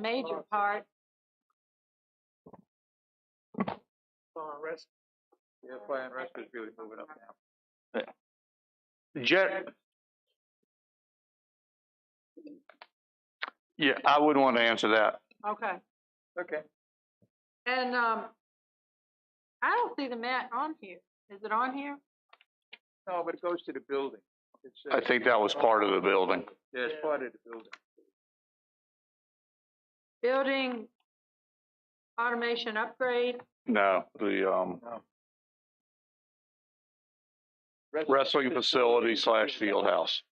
major part. on rest. Yeah, fire and rescue is really moving up now. Jer- yeah, I wouldn't want to answer that. Okay. Okay. And, um, I don't see the mat on here. Is it on here? No, but it goes to the building. It's, uh, I think that was part of the building. Yeah, it's part of the building. Building automation upgrade. No, the, um, Rest- wrestling facility slash field house.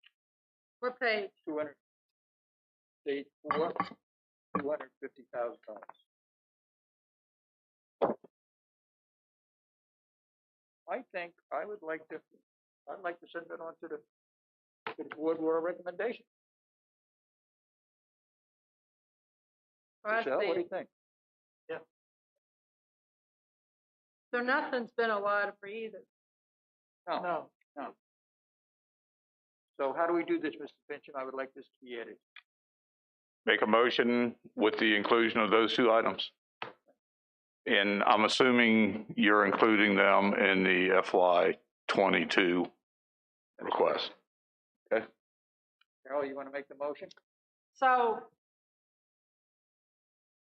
What page? Two hundred, state four, two hundred fifty thousand dollars. I think I would like to, I'd like to send it on to the, to the board with a recommendation. Oh, I Michelle, see what do it. you think? So nothing's been allotted for either. No. No. So how do we do this, Mr. Fincham? I would like this to be added. Make a motion with the inclusion of those two items. And I'm assuming you're including them in the FY twenty-two request. Carol, you wanna make the motion? So,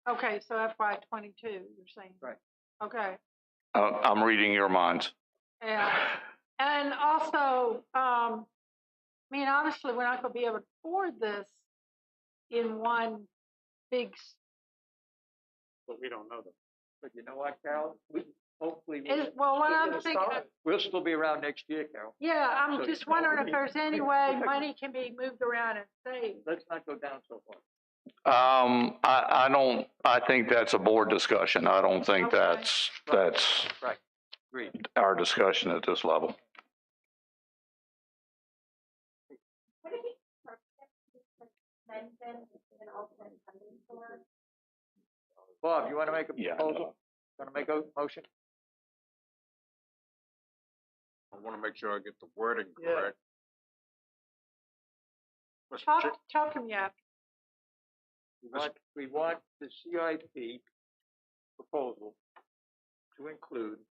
okay, so FY twenty-two, you're saying? Right. Okay, Uh, I'm reading your minds. yeah, and also, um, I mean, obviously, we're not gonna be able to afford this in one big, s- But we don't know them. But you know what, Carol? We, hopefully. we'll- is, well, what we'll I'm get a thinking, start. We'll still be around next year, Carol. yeah, So I'm just it's not wondering really- if there's any way money can be moved around and saved. Let's not go down so far. Um, I, I don't, I think that's a board discussion. I don't think Okay. that's, that's Agreed. our discussion at this level. Bob, you wanna make a Yeah. proposal? Wanna make a motion? I wanna make sure I get the wording Yeah. correct. Mr. Chair- Talk, talk to me after, We want, we want the CIP proposal to include,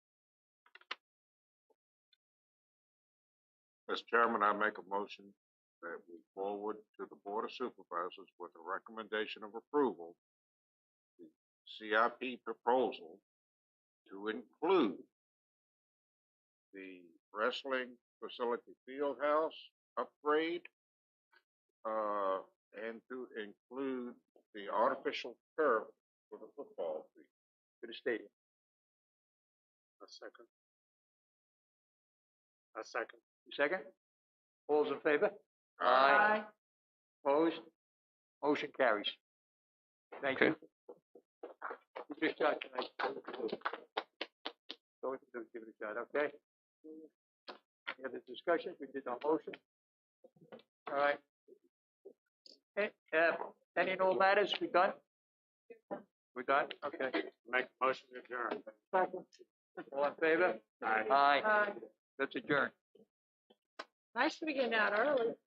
Mr. Chairman, I make a motion that we forward to the Board of Supervisors with a recommendation of approval, the CIP proposal to include the wrestling facility field house upgrade, uh, and to include the artificial turf for the football field. to the stadium. A second. A second. Second? All's in favor? Aye. Opposed? Motion carries. Thank you. Give it a shot tonight. Go ahead and give it a shot, okay? Any other discussions? We did our motion. All right. Eh, uh, any and all matters? We done? We done? Okay. Make a motion to adjourn. All in favor? Aye. Aye. That's adjourned. nice to be getting out early.